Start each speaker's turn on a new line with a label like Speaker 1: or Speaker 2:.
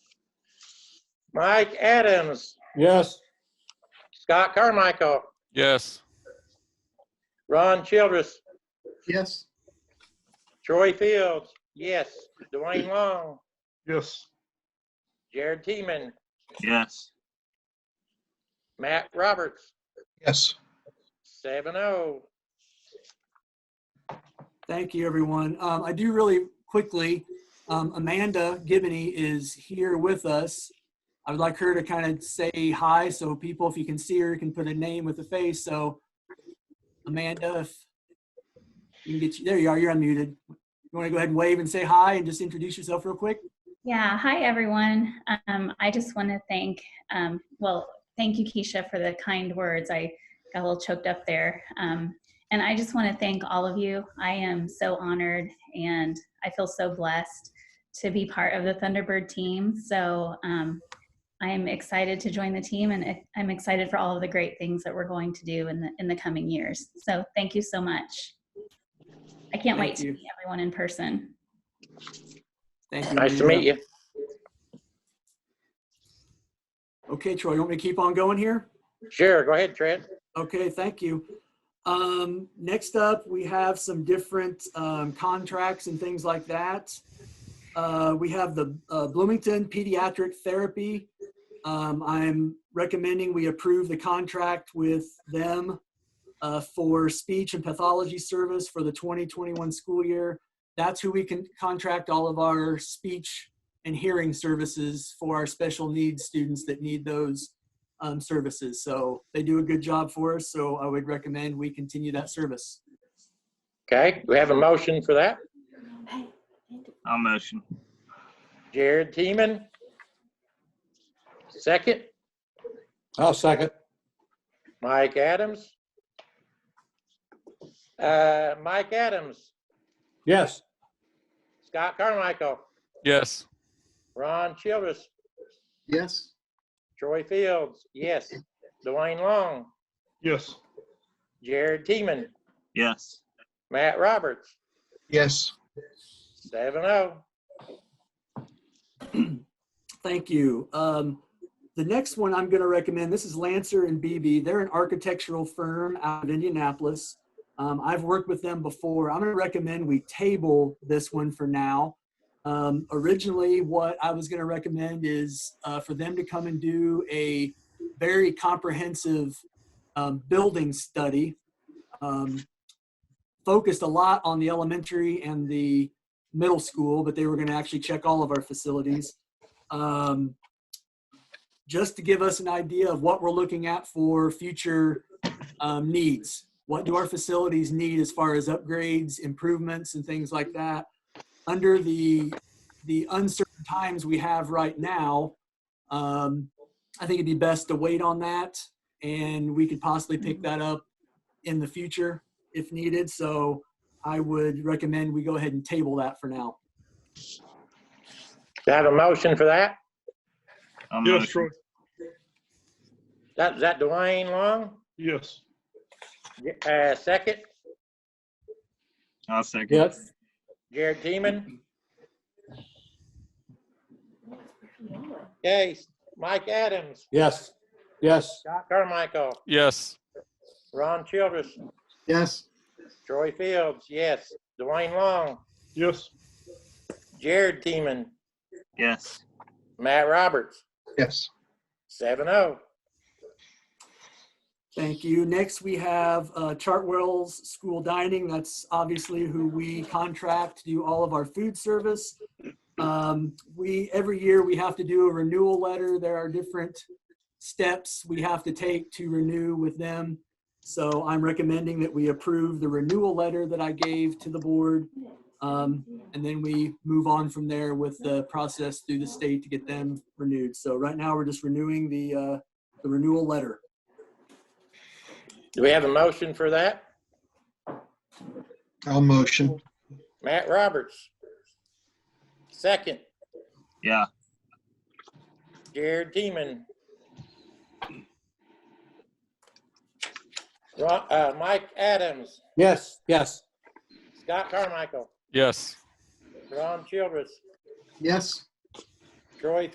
Speaker 1: Mike Adams,
Speaker 2: Yes.
Speaker 1: Scott Carmichael,
Speaker 3: Yes.
Speaker 1: Ron Childress,
Speaker 4: Yes.
Speaker 1: Troy Fields, yes. Dwayne Long,
Speaker 2: Yes.
Speaker 1: Jared Teeman,
Speaker 5: Yes.
Speaker 1: Matt Roberts,
Speaker 4: Yes.
Speaker 1: seven oh.
Speaker 6: Thank you, everyone. Um, I do really quickly, um, Amanda Gibney is here with us. I would like her to kind of say hi, so people, if you can see her, can put a name with a face. So Amanda, if you can get, you there you are, you're unmuted. You want to go ahead and wave and say hi and just introduce yourself real quick?
Speaker 7: Yeah, hi everyone. Um, I just want to thank, um, well, thank you, Keisha, for the kind words. I got a little choked up there. Um, and I just want to thank all of you. I am so honored and I feel so blessed to be part of the Thunderbird team. So um, I am excited to join the team and I'm excited for all of the great things that we're going to do in the, in the coming years. So thank you so much. I can't wait
Speaker 6: Thank
Speaker 7: to
Speaker 6: you.
Speaker 7: meet everyone in person.
Speaker 6: Thank you.
Speaker 1: Nice to
Speaker 6: Amanda.
Speaker 1: meet you.
Speaker 6: Okay, Troy, you want me to keep on going here?
Speaker 1: Sure, go ahead, Trent.
Speaker 6: Okay, thank you. Um, next up, we have some different, um, contracts and things like that. Uh, we have the, uh, Bloomington Pediatric Therapy. Um, I'm recommending we approve the contract with them, uh, for speech and pathology service for the 2021 school year. That's who we can contract all of our speech and hearing services for our special needs students that need those um, services. So they do a good job for us. So I would recommend we continue that service.
Speaker 1: Okay, we have a motion for that.
Speaker 5: I'll motion.
Speaker 1: Jared Teeman. Second,
Speaker 2: I'll second.
Speaker 1: Mike Adams. Uh, Mike Adams,
Speaker 2: Yes.
Speaker 1: Scott Carmichael,
Speaker 3: Yes.
Speaker 1: Ron Childress,
Speaker 4: Yes.
Speaker 1: Troy Fields, yes. Dwayne Long,
Speaker 2: Yes.
Speaker 1: Jared Teeman,
Speaker 5: Yes.
Speaker 1: Matt Roberts,
Speaker 4: Yes.
Speaker 1: seven oh.
Speaker 6: Thank you. Um, the next one I'm going to recommend this is Lancer and BB. They're an architectural firm out of Indianapolis. Um, I've worked with them before. I'm going to recommend we table this one for now. Um, originally, what I was going to recommend is uh, for them to come and do a very comprehensive um, building study, um, focused a lot on the elementary and the middle school, but they were going to actually check all of our facilities um, just to give us an idea of what we're looking at for future um, needs. What do our facilities need as far as upgrades, improvements, and things like that? Under the the uncertain times we have right now, um, I think it'd be best to wait on that, and we could possibly pick that up in the future if needed. So I would recommend we go ahead and table that for now.
Speaker 1: Do I have a motion for that?
Speaker 5: I'll
Speaker 2: Yes,
Speaker 5: motion.
Speaker 2: Troy.
Speaker 1: That, is that Dwayne Long?
Speaker 2: Yes.
Speaker 1: Uh, second,
Speaker 5: I'll second.
Speaker 2: Yes.
Speaker 1: Jared Teeman. Okay, Mike Adams,
Speaker 2: Yes. Yes.
Speaker 1: Scott Carmichael,
Speaker 3: Yes.
Speaker 1: Ron Childress,
Speaker 4: Yes.
Speaker 1: Troy Fields, yes. Dwayne Long,
Speaker 2: Yes.
Speaker 1: Jared Teeman,
Speaker 5: Yes.
Speaker 1: Matt Roberts,
Speaker 4: Yes.
Speaker 1: seven oh.
Speaker 6: Thank you. Next, we have uh, Chartwell's School Dining. That's obviously who we contract to do all of our food service. Um, We, every year, we have to do a renewal letter. There are different steps we have to take to renew with them. So I'm recommending that we approve the renewal letter that I gave to the board. Um, And then we move on from there with the process through the state to get them renewed. So right now, we're just renewing the, uh, the renewal letter.
Speaker 1: Do we have a motion for that?
Speaker 4: I'll motion.
Speaker 1: Matt Roberts. Second,
Speaker 5: Yeah.
Speaker 1: Jared Teeman. Ro- uh, Mike Adams,
Speaker 2: Yes. Yes.
Speaker 1: Scott Carmichael,
Speaker 3: Yes.
Speaker 1: Ron Childress,
Speaker 4: Yes.
Speaker 1: Troy